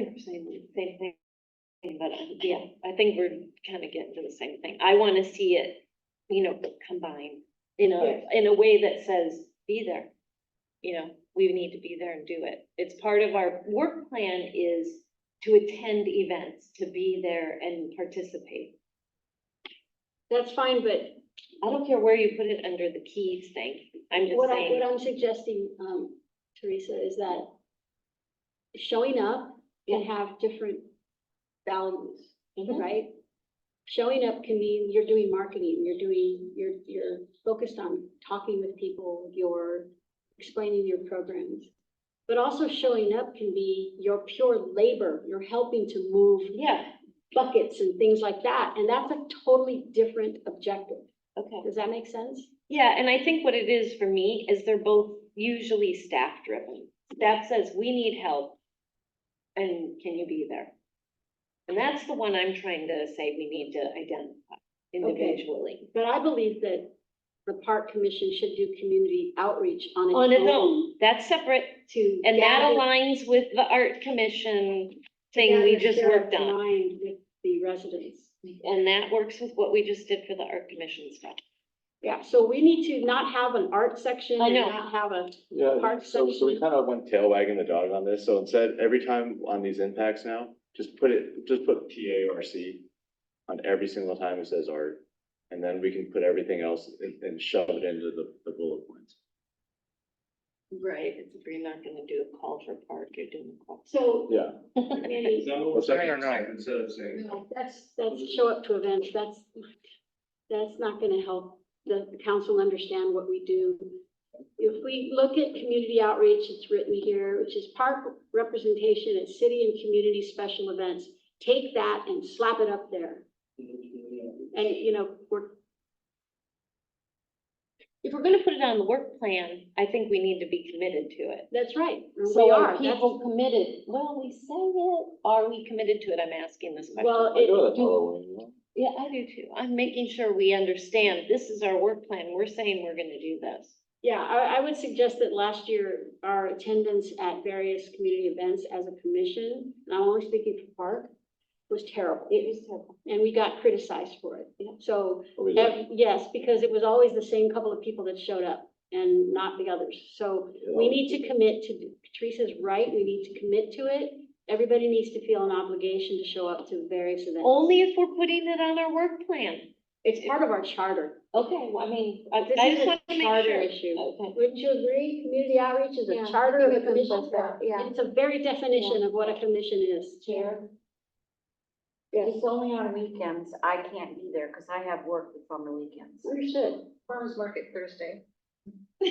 saying the same thing, but um, yeah, I think we're kind of getting to the same thing. I want to see it, you know, combined in a, Yes. in a way that says, be there. You know, we need to be there and do it. It's part of our work plan is to attend events, to be there and participate. That's fine, but I don't care where you put it under the keys thing. I'm just what I, what saying, I'm suggesting, um, Teresa, is that showing up can have different values, Mhm. right? Showing up can mean you're doing marketing, you're doing, you're, you're focused on talking with people, you're explaining your programs. But also showing up can be your pure labor, you're helping to move yeah, buckets and things like that, and that's a totally different objective. okay. Does that make sense? Yeah, and I think what it is for me is they're both usually staff driven. Staff says, we need help. And can you be there? And that's the one I'm trying to say we need to identify individually. But I believe that the park commission should do community outreach on its own. On its own, that's separate. To. And that gather- aligns with the art commission to thing we gather just their worked on. Mind with the residents. And that works with what we just did for the art commission stuff. Yeah, so we need to not have an art section I and know. not have a, Yeah, Park so, so we section. kind of went tail wagging the dog on this, so instead, every time on these impacts now, just put it, just put P A R C on every single time it says art, and then we can put everything else and, and shove it into the, the bullet points. Right, it's, you're not gonna do a call for park, you're doing a call. so. Yeah. maybe- that what we're saying or not? Instead of saying. no, That's, that's show up to events, that's, that's not gonna help the council understand what we do. If we look at community outreach, it's written here, which is park representation at city and community special events. Take that and slap it up there, and, you know, we're, If we're gonna put it on the work plan, I think we need to be committed to it. that's right, we So are are, that's, people committed? Well, we say it, are we committed to it? I'm asking this question. well, I it, go to that Halloween, you know? Yeah, I do too. I'm making sure we understand this is our work plan. We're saying we're gonna do this. Yeah, I, I would suggest that last year, our attendance at various community events as a commission, and I'm only speaking for Park, was terrible. It was terrible. And we got criticized for it. So, What we did. ev- yes, because it was always the same couple of people that showed up and not the others. So we need to commit to, Teresa's right, we need to commit to it. Everybody needs to feel an obligation to show up to various events. Only if we're putting it on our work plan. It's part of our charter. Okay, well, I mean, I This I is just a want to make charter sure. issue. Okay. Wouldn't you agree? Community outreach is Yeah, a I charter of a think we can commission. put that, yeah. It's a very definition of what a commission is. Chair? Yes. It's only on weekends. I can't be there because I have work that's on the weekends. Understood. Farmers market Thursday.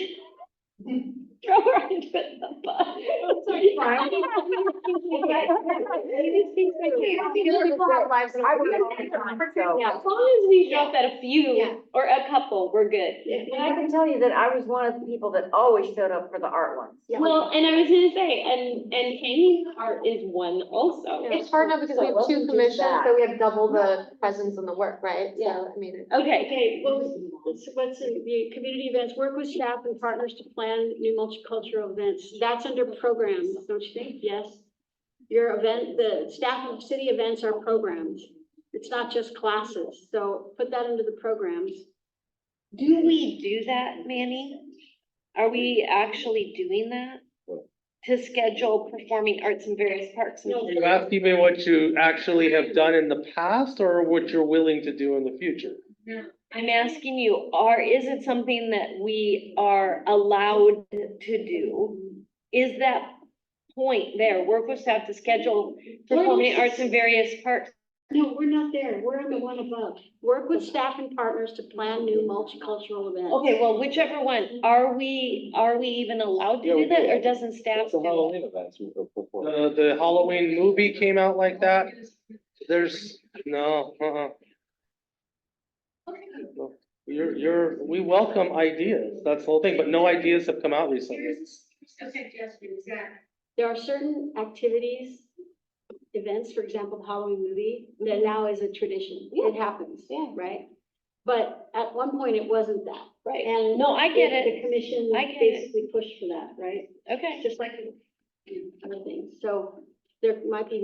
Throw her under the bus. Sorry, People have lives and I work all the time, so- Yeah. As long as we drop at a few Yeah. or a couple, we're good. And I can tell you that I was one of the people that always showed up for the art ones. Well, and I was gonna say, and, and hanging art is one also. It's hard enough because we have two commissions, so we have double the presence and the work, right? So, I mean. Okay, Okay, what was, what's, what's in the community events, work with staff and partners to plan new multicultural events. That's under programs, don't you think? Yes. Your event, the staff of city events are programs. It's not just classes, so put that into the programs. do we do that, Manny? Are we actually doing that? What? To schedule performing arts in various parks? and No. Are you asking me what you actually have done in the past or what you're willing to do in the future? I'm asking you, are, is it something that we are allowed to do? Is that point there, work with staff to schedule performing arts in various parks? No, we're not there. We're on the one above. Work with staff and partners to plan new multicultural events. Okay, well, whichever one, are we, are we even allowed to Yeah, we do that, do or that. doesn't staff It's the do it? Halloween events we were performing. Uh, the Halloween movie came out like that. There's, no, uh-uh. You're, you're, we welcome ideas. That's the whole thing, but no ideas have come out recently. Here's a suggestion, Zach. There are certain activities, events, for example, the Halloween movie, that now is a tradition. It happens, Yeah. right? But at one point, it wasn't that. Right, And. no, I get the- it, The commission I get it. basically pushed for that, right? okay. Just like other things. So there might be